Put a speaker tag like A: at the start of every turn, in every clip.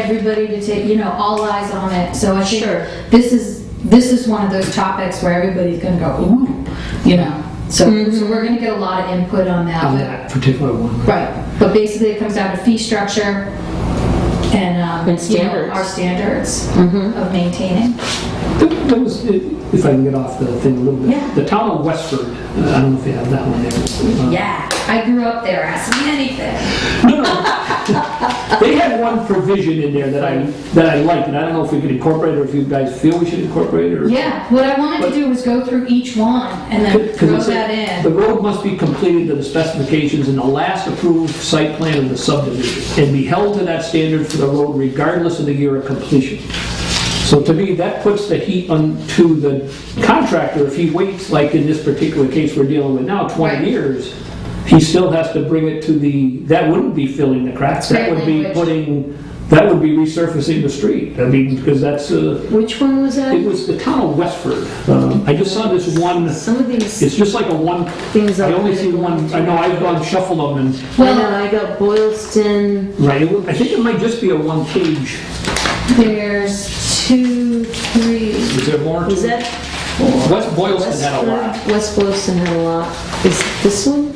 A: everybody to take, you know, all eyes on it. So I think
B: Sure.
A: this is, this is one of those topics where everybody's gonna go, ooh, you know. So,
B: Mm-hmm.
A: so we're gonna get a lot of input on
C: on
A: that.
C: that particular one.
A: But, right. But basically, it comes down to fee structure and, um,
B: And
A: you know,
B: standards. Mm-hmm.
A: our standards of maintaining.
C: There- There was, if I can get off the thing a little bit.
A: Yeah.
C: The town of Westford, uh, I don't know if you have that one there. Uh,
A: Yeah, I grew up there. Ask me anything.
C: No, no. They had one provision in there that I, that I liked, and I don't know if we could incorporate it or if you guys feel we should incorporate it or.
A: Yeah, what I wanted to do was go through each one and then
C: 'Cause
A: throw
C: it's like,
A: that
C: The
A: in.
C: road must be completed to the specifications in the last approved site plan of the subdivision and be held to that standard for the road regardless of the year of completion. So to me, that puts the heat onto the contractor. If he waits, like in this particular case we're dealing with now,
A: Right.
C: 20 years, he still has to bring it to the, that wouldn't be filling the cracks. That
A: Fair
C: would be
A: language.
C: putting, that would be resurfacing the street. I mean, because that's, uh,
B: Which one was
C: it
B: that?
C: was the town of Westford. Um, I just saw this one.
B: Some of these
C: It's just like a one,
B: Things
C: I
B: are-
C: only see one, I know I've gone shuffle them and,
B: Well, I got Boylston.
C: right, it would- I think it might just be a one page.
A: There's two, three,
C: Is there more?
B: Was that
C: West Boylston had a lot.
B: Westford? West Boylston had a lot. Is this one?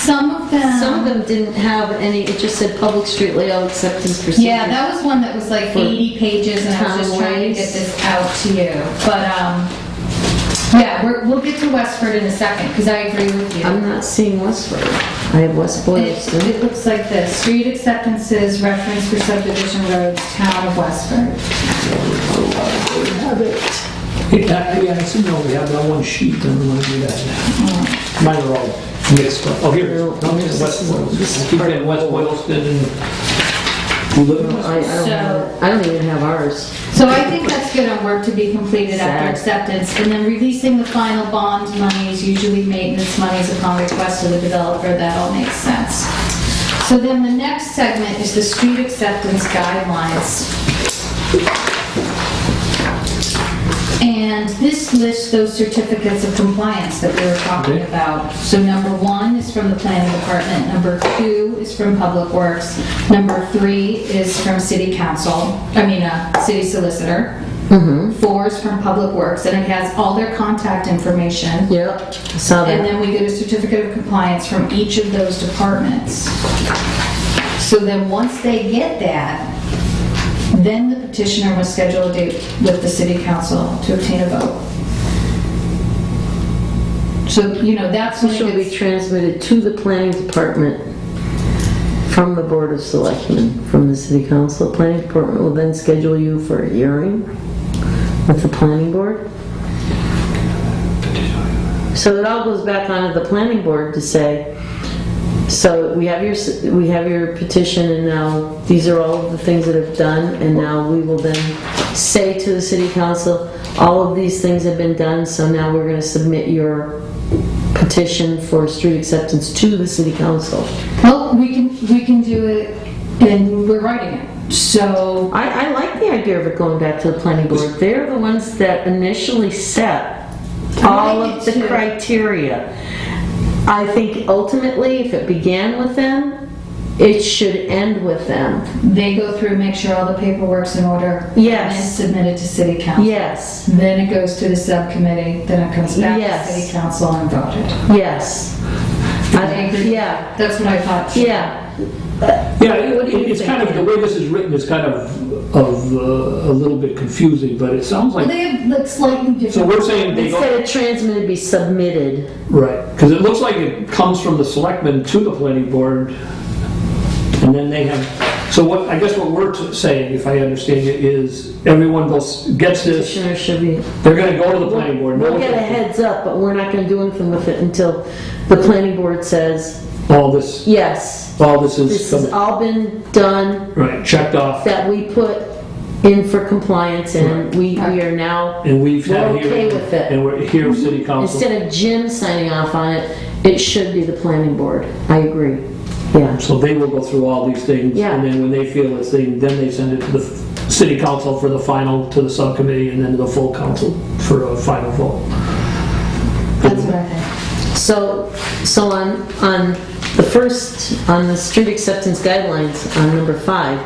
A: some of them.
B: Some of them didn't have any. It just said public street layout acceptance procedure.
A: Yeah, that was one that was like
B: For
A: 80 pages, and I was just trying to get
B: timelines.
A: this out to you. But, um, yeah, we're, we'll get to Westford in a second, because I agree with you.
B: I'm not seeing Westford. I have
A: It,
B: West Boylston.
A: it looks like this, street acceptances, reference for subdivision roads, town of Westford.
C: Yeah, yeah, I see, no, we have that one sheet, I don't want to do that. Mine are all mixed up. Oh, here, it is. no, here's West Boylston. I keep getting West Boylston and, you live in West?
B: I, I don't
A: So-
B: have. I don't even have ours.
A: So I think that's good on work to be completed after
B: Sad.
A: acceptance, and then releasing the final bond monies, usually maintenance monies upon request of the developer, that all makes sense. So then the next segment is the street acceptance guidelines. And this lists those certificates of compliance that we were talking
C: Okay.
A: about. So number one is from the planning department, number two is from Public Works, number three is from city council, I mean, uh, city solicitor. Four is from Public Works, and it has all their contact information.
B: Yep. I saw
A: And
B: that.
A: then we get a certificate of compliance from each of those departments. So then, once they get that, then the petitioner must schedule a date with the city council to obtain a vote. So, you know, that's when
B: Shall be
A: it's,
B: transmitted to the planning department from the board of selectmen, from the city council. Planning department will then schedule you for a hearing with the planning board. So it all goes back onto the planning board to say, so we have your, s- we have your petition and now these are all of the things that have done and now we will then say to the city council, all of these things have been done, so now we're gonna submit your petition for street acceptance to the city council.
A: well, we can, we can do it, and we're writing it. So,
B: I, I like the idea of it going back to the planning board. They're the ones that initially set all
A: like
B: of
A: it
B: the
A: too.
B: criteria. I think ultimately, if it began with them, it should end with them.
A: they go through, make sure all the paperwork's in order.
B: Yes.
A: And submit it to city council.
B: Yes,
A: Then it goes to the subcommittee, then it comes back
B: Yes.
A: to city council and voted.
B: yes. I think, yeah,
A: That's what I thought.
B: yeah.
C: Yeah,
B: What
C: it-
B: do you
C: it's kind of,
B: think?
C: the way this is written is kind of, of, uh, a little bit confusing, but it sounds
A: Well,
C: like,
A: they have like slightly
C: so
A: different.
C: we're saying they go.
B: Instead of transmitted, be submitted.
C: Right, because it looks like it comes from the selectmen to the planning board, and then they have, so what, I guess what we're t- saying, if I understand it, is everyone goes, gets this,
B: Petitioner should be.
C: they're gonna go to the planning board. no
B: We'll
C: one
B: get a
C: can-
B: heads up, but we're not gonna do anything with it until the planning board says,
C: All this,
B: yes,
C: all this
B: This
C: is,
B: has
C: coming-
B: all been done
C: right, checked off,
B: that we put in for compliance and we, we are now,
C: and we've had
B: We're
C: here.
B: okay with it. Mm-hmm.
C: And we're here, city council,
B: instead of Jim signing off on it, it should be the planning board. I agree. Yeah.
C: so they will go through all these things,
B: Yeah.
C: and then when they feel it's thing, then they send it to the f- city council for the final, to the subcommittee, and then to the full council for a final vote.
A: That's what I think.
B: So, so on, on the first, on the street acceptance guidelines, on number five,